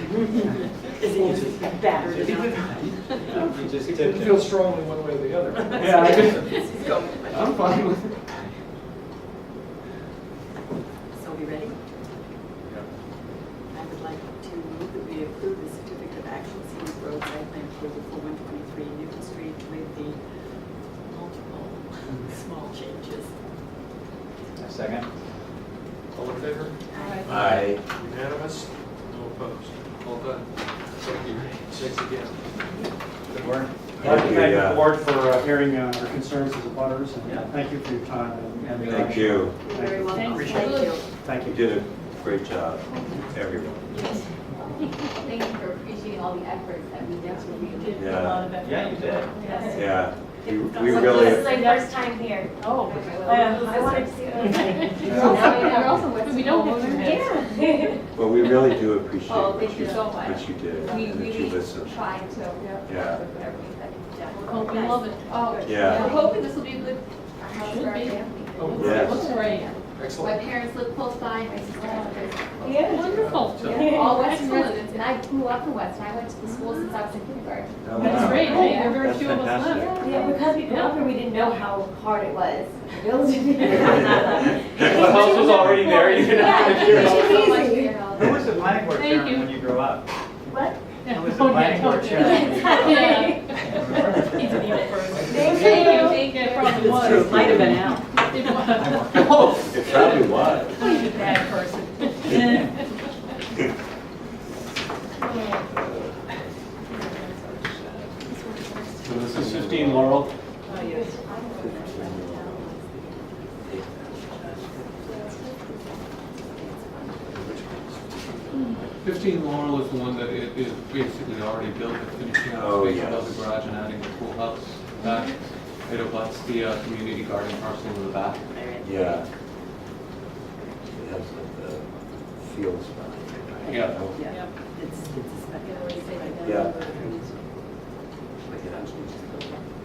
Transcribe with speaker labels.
Speaker 1: Is it just battered enough?
Speaker 2: You just
Speaker 3: It
Speaker 2: tipped
Speaker 3: didn't
Speaker 2: it.
Speaker 3: feel strongly one way or the other.
Speaker 2: Yeah, I just- I'm fine with it.
Speaker 1: So we ready? I would like to move that we approve the certificate of action scenic road site plan approval for one twenty-three Newton Street with the multiple small changes.
Speaker 2: A second.
Speaker 3: All in favor?
Speaker 2: Aye.
Speaker 3: Unanimous? No opposed? All done. Thank you. Thanks again.
Speaker 2: Good work.
Speaker 4: I'd like to thank
Speaker 5: Yeah.
Speaker 4: the board for uh, hearing uh, our concerns as a butters,
Speaker 3: Yeah.
Speaker 4: and thank you for your time. and- and, uh,
Speaker 5: Thank you.
Speaker 1: You're very welcome.
Speaker 4: Thanks.
Speaker 1: Thank you.
Speaker 4: Thank
Speaker 5: You
Speaker 4: you.
Speaker 5: did a great job, everyone.
Speaker 6: Yes. Thank you for appreciating all the efforts that we did to make it.
Speaker 5: Yeah.
Speaker 2: Yeah, you did.
Speaker 6: Yes.
Speaker 5: Yeah, we we
Speaker 6: So This is
Speaker 5: really,
Speaker 6: my first time here.
Speaker 7: Oh,
Speaker 6: Well, Um, I wanted to see
Speaker 4: Yeah.
Speaker 6: Now I know.
Speaker 7: we don't have to.
Speaker 6: Yeah.
Speaker 5: well, we really do appreciate
Speaker 6: Oh,
Speaker 5: what
Speaker 6: thank
Speaker 5: you,
Speaker 6: you so much.
Speaker 5: what you did
Speaker 6: We
Speaker 5: and that you
Speaker 6: really
Speaker 5: listened.
Speaker 6: tried to.
Speaker 5: Yeah.
Speaker 6: with everything that you've done.
Speaker 7: Oh, we love it.
Speaker 6: Oh,
Speaker 5: Yeah.
Speaker 6: I'm hoping this will be a good house
Speaker 7: Should
Speaker 6: for our
Speaker 7: be.
Speaker 6: family.
Speaker 3: Oh,
Speaker 7: It
Speaker 5: Yes.
Speaker 7: looks great.
Speaker 6: My
Speaker 3: Excellent.
Speaker 6: parents live close by, my sister lives close by.
Speaker 7: Wonderful.
Speaker 6: Yeah, All Western
Speaker 7: Excellent.
Speaker 6: residents, and I grew up in Weston, I went to the school since I was in kindergarten.
Speaker 5: Oh,
Speaker 7: That's
Speaker 5: wow.
Speaker 7: great. Hey, there are very
Speaker 5: That's
Speaker 7: few of us left.
Speaker 5: fantastic.
Speaker 8: Yeah, because we grew up here, we didn't know how hard it was. It
Speaker 2: The house was already there, you didn't have to hear it.
Speaker 6: Thank you so much for
Speaker 8: Easy.
Speaker 6: your help.
Speaker 2: Who was the planning board
Speaker 7: Thank
Speaker 2: chairman
Speaker 7: you.
Speaker 2: when you grew up?
Speaker 8: What?
Speaker 2: Who was the
Speaker 7: Oh, yeah,
Speaker 2: planning board
Speaker 7: don't-
Speaker 2: chairman?
Speaker 7: Yeah.
Speaker 1: He's an eel first.
Speaker 8: Thank you.
Speaker 7: Thank you. It probably was.
Speaker 1: It Might have been out.
Speaker 7: It was.
Speaker 5: Oh, It probably was.
Speaker 7: He's a bad person.
Speaker 4: So this is 15 Laurel.
Speaker 1: Oh, yes.
Speaker 9: Fifteen Laurel is the one that i- is basically already built, it's finishing
Speaker 5: Oh,
Speaker 9: out space above
Speaker 5: yes.
Speaker 9: the garage and adding the pool house back. It abuts the uh, community garden parcel in the back.
Speaker 5: Yeah. It has like the fields behind it.
Speaker 9: Yeah.
Speaker 1: Yeah, it's, it's a spec.
Speaker 5: Yeah.
Speaker 1: Thank